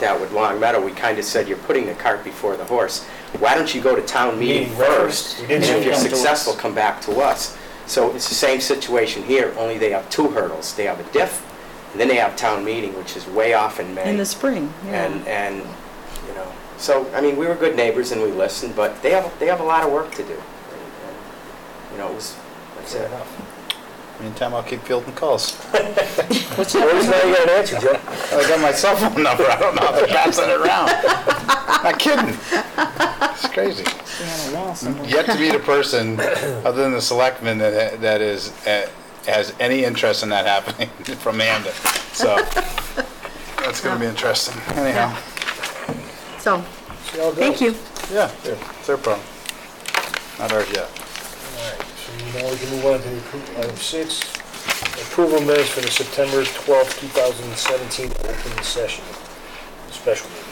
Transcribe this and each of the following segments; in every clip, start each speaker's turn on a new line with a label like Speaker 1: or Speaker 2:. Speaker 1: that with Long Meadow, we kind of said, you're putting the cart before the horse. Why don't you go to town meeting
Speaker 2: Meeting first.
Speaker 1: first?
Speaker 2: We
Speaker 1: And
Speaker 2: didn't
Speaker 1: if you're
Speaker 2: come to us.
Speaker 1: successful, come back to us. So it's the same situation here, only they have two hurdles. They have a diff, and then they have town meeting, which is way off in May.
Speaker 3: In the spring,
Speaker 1: And,
Speaker 3: yeah.
Speaker 1: and, you know, so, I mean, we were good neighbors and we listened, but they have, they have a lot of work to do. You know, it was, that's
Speaker 2: Fair
Speaker 1: it.
Speaker 2: enough.
Speaker 4: Meantime, I'll keep fielding calls.
Speaker 3: What's
Speaker 2: Well, he's
Speaker 3: that?
Speaker 2: not gonna answer, Joe.
Speaker 4: I got my cell phone number, I don't know how they're passing it around. Not kidding. It's crazy.
Speaker 3: Yeah, wall somewhere.
Speaker 4: Yet to meet a person, other than the selectman, that, that is, eh, has any interest in that happening from Amanda. So, that's gonna be interesting. Anyhow,
Speaker 3: So,
Speaker 2: See how it
Speaker 3: thank
Speaker 2: goes.
Speaker 3: you.
Speaker 4: yeah, there- it's their problem. Not ours yet.
Speaker 2: All right, so now we can move on to appro- item six, approval minutes for the September twelfth, two 2017 open session, special meeting.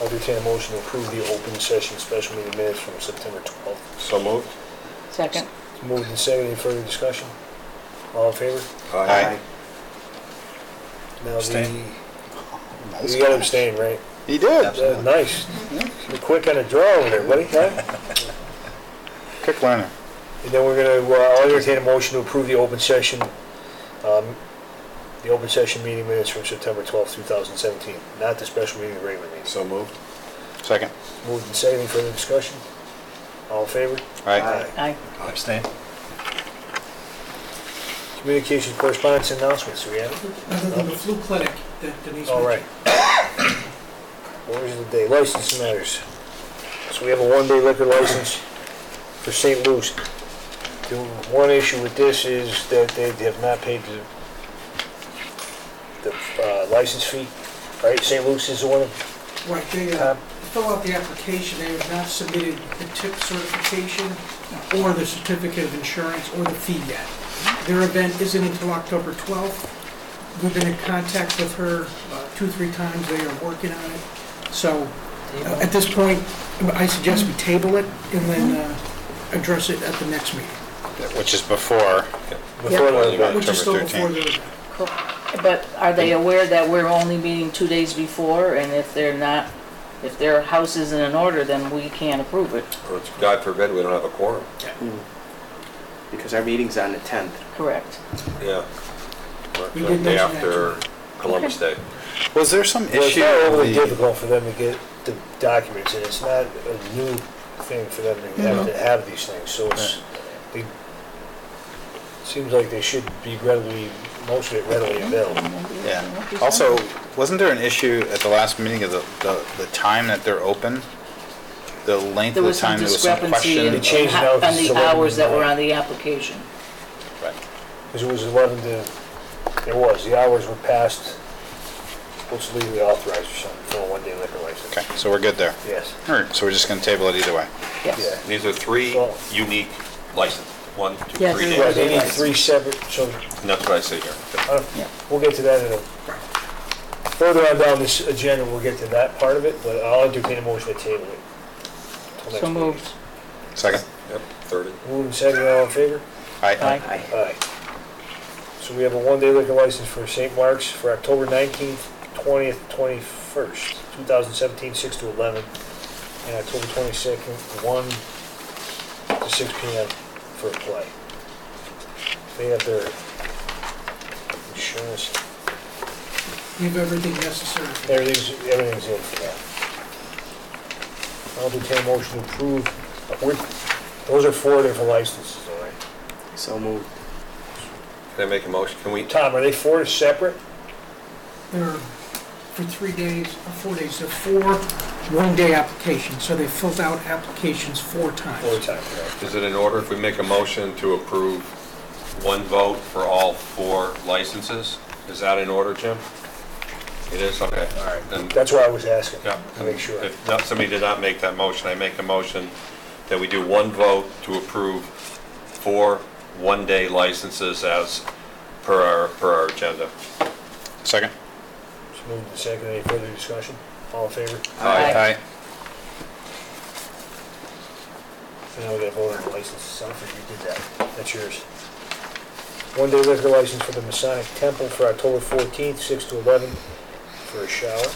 Speaker 2: I'll entertain a motion to approve the open session special meeting minutes from September 12th.
Speaker 5: So moved.
Speaker 3: Second.
Speaker 2: Moved and seconded, any further discussion? All in favor?
Speaker 4: Aye.
Speaker 2: Now the,
Speaker 4: Abstain.
Speaker 2: you gotta abstain, right?
Speaker 4: He did.
Speaker 2: Uh, Nice. You're quick on the draw over there, buddy, huh?
Speaker 4: Quick learner.
Speaker 2: And then we're gonna, uh, I'll entertain a motion to approve the open session, um, the open session meeting minutes from September 12th, 2017, not the special meeting, the regular meeting.
Speaker 5: So moved.
Speaker 4: Second.
Speaker 2: Moved and seconded, any further discussion? All in favor?
Speaker 4: Aye.
Speaker 3: Aye.
Speaker 5: Abstain.
Speaker 2: Communications, correspondence, and announcements, do we have? it?
Speaker 6: The the flu clinic that Denise
Speaker 2: All right.
Speaker 6: mentioned.
Speaker 2: Orders of the day, license matters. So we have a one-day liquor license for St. Louis. The one issue with this is that they have not paid the, the uh, license fee, right? St. Louis is the one,
Speaker 6: Right, they
Speaker 2: uh,
Speaker 6: uh, fill out the application, they have not submitted the tip certification or the certificate of insurance or the fee yet. Their event isn't until October 12th. We've been in contact with her uh, two, three times, they are working on it. So uh, at this point, I suggest we table it and then uh, address it at the next meeting,
Speaker 4: Which is before.
Speaker 2: before the,
Speaker 6: which is still
Speaker 4: October
Speaker 6: before the event.
Speaker 7: But are they aware that we're only meeting two days before, and if they're not, if their house isn't in order, then we can't approve it?
Speaker 5: Or it's- God forbid, we don't have a quorum.
Speaker 1: Because our meeting's on the 10th.
Speaker 7: Correct.
Speaker 5: Yeah.
Speaker 6: We
Speaker 5: The
Speaker 6: did mention
Speaker 5: uh, Day
Speaker 6: that,
Speaker 5: after Columbus Day.
Speaker 4: Was there some
Speaker 2: well, it's
Speaker 4: issue?
Speaker 2: not overly
Speaker 4: with the-
Speaker 2: difficult for them to get the documents, and it's not a new thing for them to have to have these things, so it's, they, seems like they should be readily, most of it readily available.
Speaker 4: Mm-hmm. Yeah. Also, wasn't there an issue at the last meeting of the, the, the time that they're open? The length
Speaker 7: There
Speaker 4: of the
Speaker 7: was some
Speaker 4: time, there was some
Speaker 7: discrepancy in-
Speaker 4: question.
Speaker 2: They changed it
Speaker 7: on
Speaker 2: out to
Speaker 7: the
Speaker 2: eleven
Speaker 7: hours that were
Speaker 2: nine.
Speaker 7: on the application.
Speaker 4: Right.
Speaker 2: Because it was 11 to, it was, the hours were past what's legally authorized or something for a one-day liquor license.
Speaker 4: Okay, so we're good there.
Speaker 2: Yes,
Speaker 4: All right, so we're just gonna table it either way.
Speaker 2: yeah.
Speaker 7: Yes.
Speaker 5: These are three
Speaker 2: Well-
Speaker 5: unique licenses. One, two,
Speaker 3: Yes.
Speaker 5: three
Speaker 2: Yeah,
Speaker 5: days.
Speaker 2: they need three separate, so
Speaker 5: And that's what I say here.
Speaker 2: uh, we'll get to that in a, further on down this agenda, we'll get to that part of it, but I'll entertain a motion to table it. till next
Speaker 7: So
Speaker 2: meeting.
Speaker 7: moved.
Speaker 4: Second?
Speaker 5: Yep, 30.
Speaker 2: Moved and seconded, all in favor?
Speaker 4: Aye.
Speaker 7: Aye.
Speaker 1: Aye.
Speaker 2: Aye. So we have a one-day liquor license for St. Mark's for October 19th, 20th, 21st, 2017, 6 to 11, and October 22nd, 1 to 6 p.m. for a play. They have their insurance,
Speaker 6: We have everything necessary.
Speaker 2: everything's, everything's in for that. I'll entertain a motion to approve, uh, we're- those are four different licenses, all right?
Speaker 1: So moved.
Speaker 5: Can I make a motion? Can we,
Speaker 2: Tom, are they four separate?
Speaker 6: They're for three days, or four days, they're four one-day applications, so they filled out applications
Speaker 2: Four
Speaker 6: four times.
Speaker 2: times, right?
Speaker 5: is it in order if we make a motion to approve one vote for all four licenses? Is that in order, Jim? It is, okay. All right. Then
Speaker 2: That's why I was asking,
Speaker 5: Yeah.
Speaker 2: to make sure.
Speaker 5: If not- somebody did not make that motion, I make a motion that we do one vote to approve four one-day licenses as per our, per our agenda.
Speaker 4: Second?
Speaker 2: Just moved to second, any further discussion? All in favor?
Speaker 7: Aye.
Speaker 4: Aye.
Speaker 2: And now we gotta vote on the license itself, if you did that, that's yours. One-day liquor license for the Masonic Temple for October fourteenth, six to eleven, for a shower.